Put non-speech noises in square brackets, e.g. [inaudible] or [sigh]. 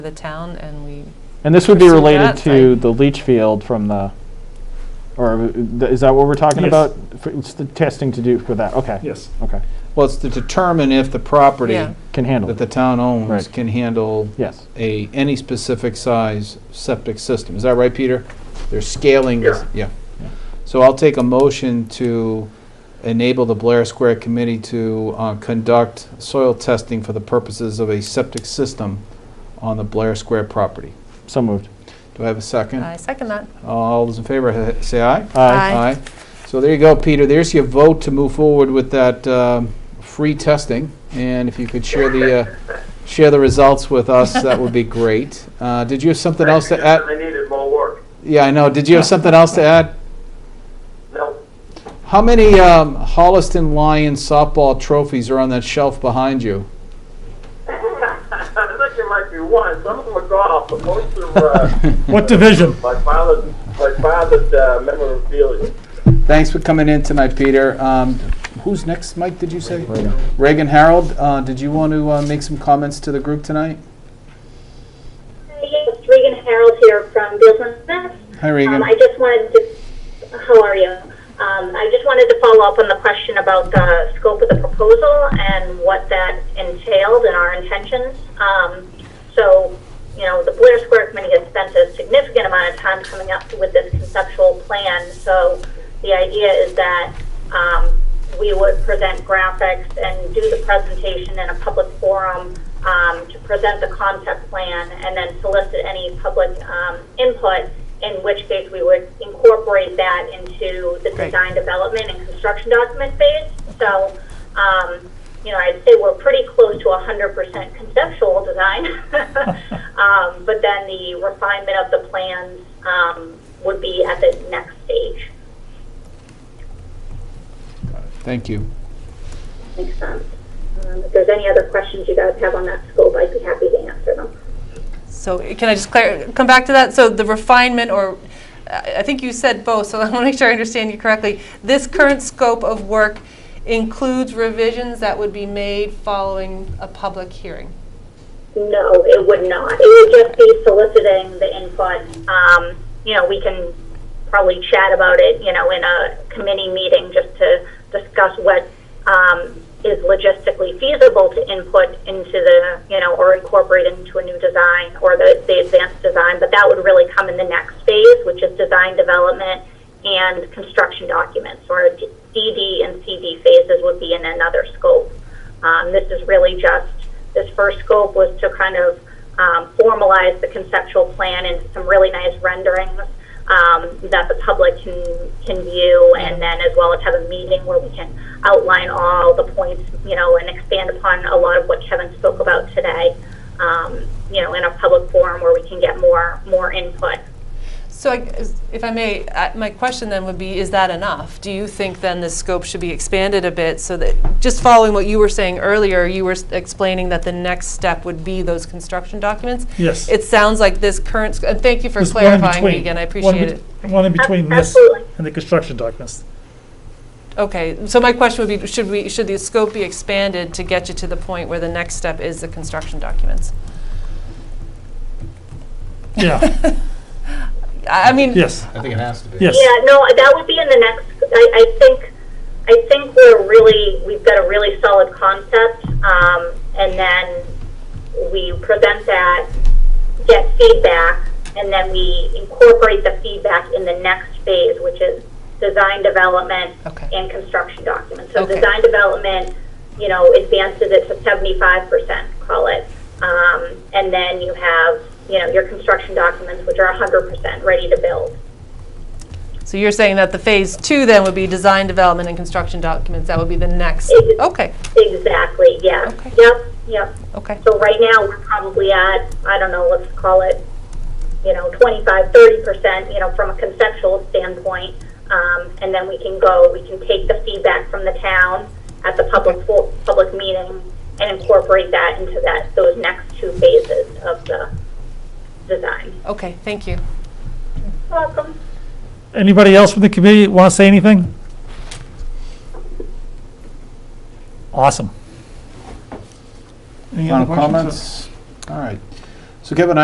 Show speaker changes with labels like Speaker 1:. Speaker 1: the town, and we,
Speaker 2: And this would be
Speaker 1: Pursue
Speaker 2: related
Speaker 1: that,
Speaker 2: to
Speaker 1: right.
Speaker 2: the leach field from the, or uh, th- is that what we're talking
Speaker 3: Yes.
Speaker 2: about? F- It's the testing to do for that, okay.
Speaker 3: Yes.
Speaker 2: Okay,
Speaker 4: Well, it's to determine if the property
Speaker 1: Yeah.
Speaker 2: can handle
Speaker 4: that the
Speaker 2: it,
Speaker 4: town owns
Speaker 2: Right.
Speaker 4: can handle
Speaker 2: yes.
Speaker 4: a, any specific size septic system. Is that right, Peter? They're scaling this, yeah.
Speaker 2: Yeah.
Speaker 4: So I'll take a motion to enable the Blair Square Committee to uh, conduct soil testing for the purposes of a septic system on the Blair Square property.
Speaker 2: So moved.
Speaker 4: Do I have a second?
Speaker 1: I second that.
Speaker 4: All those in favor, ha- say aye.
Speaker 2: Aye.
Speaker 1: Aye.
Speaker 4: So there you go, Peter. There's your vote to move forward with that um, free testing. And if you could share the, uh, share the results with us, that would be great. Uh, Did you have something else to add?
Speaker 5: I needed more work.
Speaker 4: Yeah, I know. Did you have something else to add?
Speaker 5: No, [laughs]
Speaker 4: How many um, Holliston Lions softball trophies are on that shelf behind you?
Speaker 5: I think it might be one. Some of them are golf, but most of uh,
Speaker 3: [laughs] What division?
Speaker 5: my father's my father's uh, memorabilia.
Speaker 4: Thanks for coming in tonight, Peter. Um, Who's next, Mike, did you say? Reagan Harold, uh, did you want to uh, make some comments to the group tonight?
Speaker 6: Yes, Regan Harold here from Business.
Speaker 4: Hi,
Speaker 6: Um,
Speaker 4: Reagan.
Speaker 6: I just wanted to, how are you? Um, I just wanted to follow up on the question about the scope of the proposal and what that entailed and our intentions. Um, so, you know, the Blair Square Committee has spent a significant amount of time coming up with this conceptual plan. So the idea is that, um, we would present graphics and do the presentation in a public forum um, to present the concept plan and then solicit any public um, input, in which case we would incorporate that into the
Speaker 1: Great.
Speaker 6: design development and construction document phase. So, um, you know, I'd say we're pretty close to 100% conceptual design. um, but then the refinement of the plans um, would be at the next stage.
Speaker 4: Thank you.
Speaker 6: Makes sense. Um, If there's any other questions you guys have on that scope, I'd be happy to answer them.
Speaker 1: So can I just clar- come back to that? So the refinement, or I I think you said both, so [laughs] I want to make sure I understand you correctly. This current scope of work includes revisions that would be made following a public hearing.
Speaker 6: No, it would not. It would just be soliciting the input. Um, You know, we can probably chat about it, you know, in a committee meeting just to discuss what um, is logistically feasible to input into the, you know, or incorporate into a new design or the, the advanced design, but that would really come in the next phase, which is design development and construction documents, or DD and CD phases would be in another scope. Um, this is really just, this first scope was to kind of um, formalize the conceptual plan into some really nice renderings um, that the public can, can view, and then as well as have a meeting where we can outline all the points, you know, and expand upon a lot of what Kevin spoke about today, um, you know, in a public forum where we can get more, more input.
Speaker 1: So I- is- if I may, I- my question then would be, is that enough? Do you think then this scope should be expanded a bit so that, just following what you were saying earlier, you were s- explaining that the next step would be those construction documents?
Speaker 3: Yes.
Speaker 1: It sounds like this current, sc- and thank you for
Speaker 3: There's one in
Speaker 1: clarifying,
Speaker 3: between.
Speaker 1: Regan, I
Speaker 3: One in
Speaker 1: appreciate it.
Speaker 3: bet- One in between this
Speaker 6: Absolutely.
Speaker 3: and the
Speaker 1: [laughs]
Speaker 3: construction documents.
Speaker 1: Okay, so my question would be, should we, should the scope be expanded to get you to the point where the next step is the construction documents?
Speaker 3: Yeah,
Speaker 1: I I mean,
Speaker 3: yes,
Speaker 4: I think it has to be.
Speaker 3: yes.
Speaker 6: Yeah, no, that would be in the next, I, I think, I think we're really, we've got a really solid concept, um, and then we present that, get feedback, and then we incorporate the feedback in the next phase, which is design development
Speaker 1: Okay.
Speaker 6: and construction documents. So
Speaker 1: Okay.
Speaker 6: design development, you know, advances it to seventy-five percent, call it. Um, and then you have, you know, your construction documents, which are hundred percent ready to build.
Speaker 1: so you're saying that the phase two then would be design, development, and construction documents, that would be the next,
Speaker 6: It-
Speaker 1: okay,
Speaker 6: Exactly, yeah.
Speaker 1: Okay.
Speaker 6: Yep, yep.
Speaker 1: okay.
Speaker 6: So right now, we're probably at, I don't know, let's call it, you know, 25, 30%, you know, from a conceptual standpoint. Um, And then we can go, we can take the feedback from the town at the public, fo- public meeting and incorporate that into that, those next two phases of the design.
Speaker 1: Okay, thank you.
Speaker 6: Welcome.
Speaker 3: Anybody else from the committee want to say anything? Awesome. Any
Speaker 4: Final
Speaker 3: other questions?
Speaker 4: comments? All right. So Kevin,